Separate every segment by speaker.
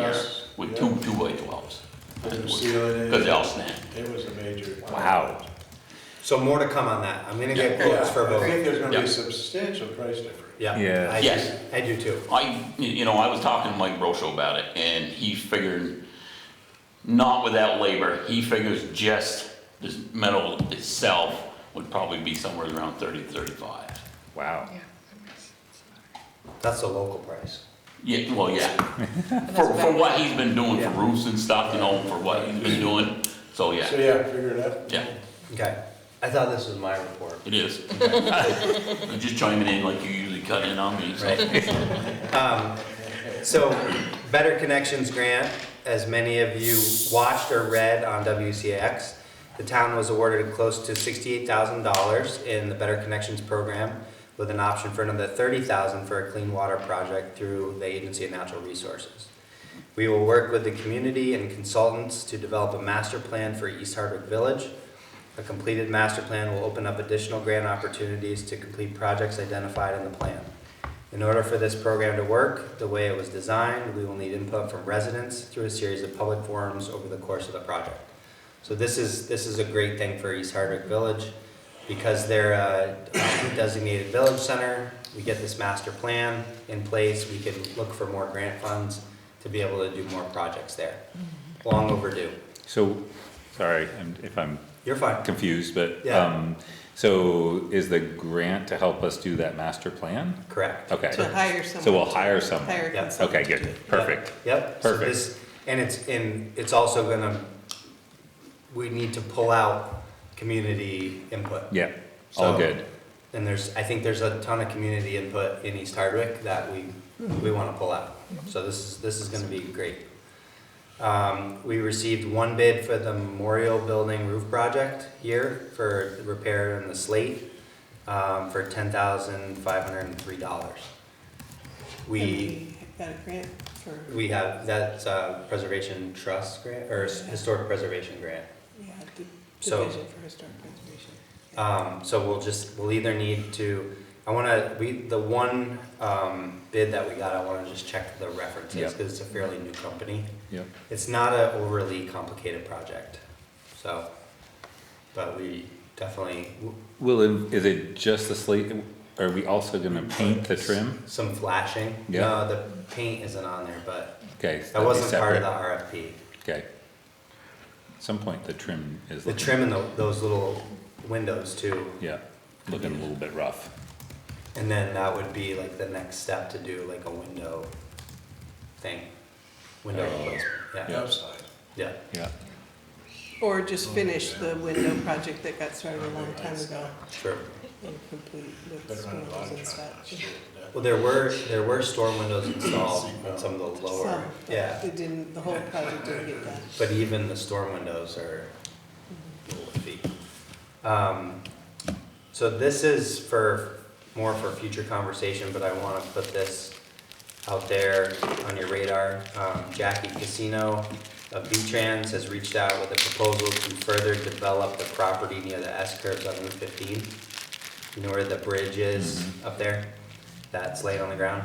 Speaker 1: Yes, with two, two by twelves.
Speaker 2: Didn't seal it in.
Speaker 1: Cause they'll snap.
Speaker 2: It was a major.
Speaker 3: Wow. So more to come on that. I'm gonna get
Speaker 2: Yeah, I
Speaker 3: quotes for both.
Speaker 2: think there's gonna
Speaker 1: Yeah.
Speaker 2: be substantial price difference.
Speaker 3: Yeah.
Speaker 4: Yeah.
Speaker 3: I do-
Speaker 1: Yes.
Speaker 3: I do too.
Speaker 1: I, you know, I was talking to Mike Rocho about it and he figured, not without labor, he figures just this metal itself would probably be somewhere around thirty, thirty-five.
Speaker 4: Wow.
Speaker 3: That's the local price.
Speaker 1: Yeah, well, yeah. For, for what he's been doing for roofs and stuff, you know, for what he's been doing, so
Speaker 2: So,
Speaker 1: yeah,
Speaker 2: yeah, figure it out.
Speaker 1: yeah,
Speaker 3: Okay. I thought this was my report.
Speaker 1: it is. I'm just chiming in like you usually cut in on me, so.
Speaker 3: Um, So, Better Connections Grant, as many of you watched or read on WCX, the town was awarded close to sixty-eight thousand dollars in the Better Connections Program with an option for another thirty thousand for a clean water project through the Agency of Natural Resources. We will work with the community and consultants to develop a master plan for East Hardwick Village. A completed master plan will open up additional grant opportunities to complete projects identified in the plan. In order for this program to work, the way it was designed, we will need input from residents through a series of public forums over the course of the project. So this is, this is a great thing for East Hardwick Village, because they're a designated village center, we get this master plan in place, we can look for more grant funds to be able to do more projects there. Long overdue.
Speaker 4: So, sorry I'm- if I'm
Speaker 3: You're fine.
Speaker 4: confused, but,
Speaker 3: Yeah.
Speaker 4: um, so is the grant to help us do that master plan?
Speaker 3: Correct.
Speaker 4: Okay.
Speaker 5: To hire
Speaker 4: So we'll
Speaker 5: someone.
Speaker 4: hire someone.
Speaker 5: Hire a
Speaker 3: Yeah.
Speaker 5: consultant.
Speaker 4: Okay, good, perfect.
Speaker 3: Yep. So
Speaker 4: Perfect.
Speaker 3: this- And it's, and it's also gonna, we need to pull out community input.
Speaker 4: Yeah, all
Speaker 3: So-
Speaker 4: good.
Speaker 3: And there's, I think there's a ton of community input in East Hardwick that we, we wanna pull out. So this is, this is gonna be great. Um, we received one bid for the Memorial Building roof project here for the repair and the slate, um, for ten thousand five hundred and three dollars. We,
Speaker 5: And Got a grant for,
Speaker 3: we have, that's a preservation trust grant, or historic preservation grant.
Speaker 5: yeah, the
Speaker 3: So-
Speaker 5: division for historic preservation.
Speaker 3: Um, so we'll just, we'll either need to, I wanna, we, the one, um, bid that we got, I wanna just check the references,
Speaker 4: Yep.
Speaker 3: cause it's a fairly new company.
Speaker 4: Yep.
Speaker 3: It's not a overly complicated project, so, but we definitely,
Speaker 4: Will, it- is it just the slate, are we also gonna paint the trim?
Speaker 3: some flashing.
Speaker 4: Yeah.
Speaker 3: No, the paint isn't on there, but
Speaker 4: Okay.
Speaker 3: that wasn't part of the RFP.
Speaker 4: Okay. At Some point, the trim is.
Speaker 3: The
Speaker 4: looking-
Speaker 3: trim and tho- those little windows too,
Speaker 4: Yeah, looking a little bit rough.
Speaker 3: and then that would be like the next step to do like a window thing. Window replacement, yeah.
Speaker 2: Outside.
Speaker 3: Yeah,
Speaker 4: Yeah.
Speaker 5: Or just finish the window project that got started a long time ago
Speaker 3: sure.
Speaker 5: and complete with
Speaker 2: Better run a lot
Speaker 5: windows
Speaker 2: of
Speaker 5: and
Speaker 2: traffic.
Speaker 5: such.
Speaker 3: Well, there were, there were storm windows installed on some of the lower,
Speaker 5: Some, but
Speaker 3: yeah,
Speaker 5: It didn't, the whole project didn't get done.
Speaker 3: but even the storm windows are little iffy. Um, so this is for, more for future conversation, but I wanna put this out there on your radar. Um, Jackie Casino of V-Trans has reached out with a proposal to further develop the property near the S-curves on Route fifteen. You know where the bridge is up there? That's laid on the ground.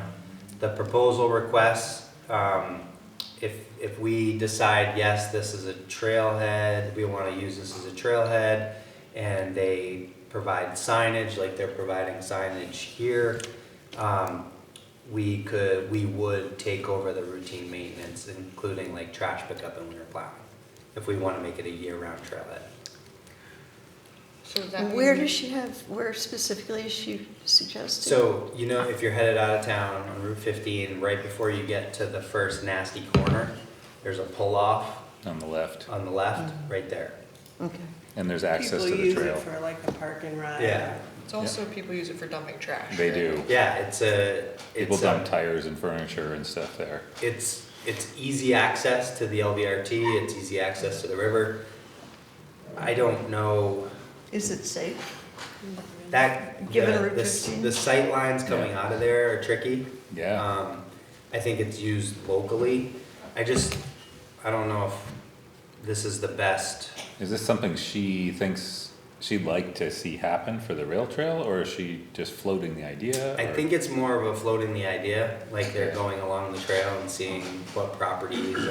Speaker 3: The proposal requests, um, if, if we decide, yes, this is a trailhead, we wanna use this as a trailhead, and they provide signage, like they're providing signage here, um, we could, we would take over the routine maintenance, including like trash pickup and winter plowing, if we wanna make it a year-round trailhead.
Speaker 6: So does that
Speaker 7: Where
Speaker 6: mean-
Speaker 7: does she have, where specifically is she suggesting?
Speaker 3: So, you know, if you're headed out of town on Route fifteen, right before you get to the first nasty corner, there's a pull-off
Speaker 4: On the left,
Speaker 3: on the left,
Speaker 7: Mm-hmm.
Speaker 3: right there.
Speaker 7: Okay.
Speaker 4: and there's access to
Speaker 5: People
Speaker 4: the
Speaker 5: use it
Speaker 4: trail.
Speaker 5: for like a park and ride.
Speaker 3: Yeah.
Speaker 6: It's also people use it for dumping trash.
Speaker 4: They
Speaker 6: right?
Speaker 4: do.
Speaker 3: Yeah, it's a,
Speaker 4: People
Speaker 3: it's um,
Speaker 4: dump
Speaker 3: a,
Speaker 4: tires and furniture and stuff there.
Speaker 3: it's, it's easy access to the LVRT, it's easy access to the river. I don't know,
Speaker 7: Is it safe?
Speaker 3: that,
Speaker 7: Given
Speaker 3: the,
Speaker 7: Route
Speaker 3: the s-
Speaker 7: 15?
Speaker 3: the sight lines coming out of there are tricky.
Speaker 4: Yeah.
Speaker 3: Um, I think it's used locally, I just, I don't know if this is the best
Speaker 4: Is this something she thinks she'd like to see happen for the rail trail, or is she just floating the idea?
Speaker 3: I
Speaker 4: or-
Speaker 3: think it's more of a floating the idea, like they're going along the trail and seeing what properties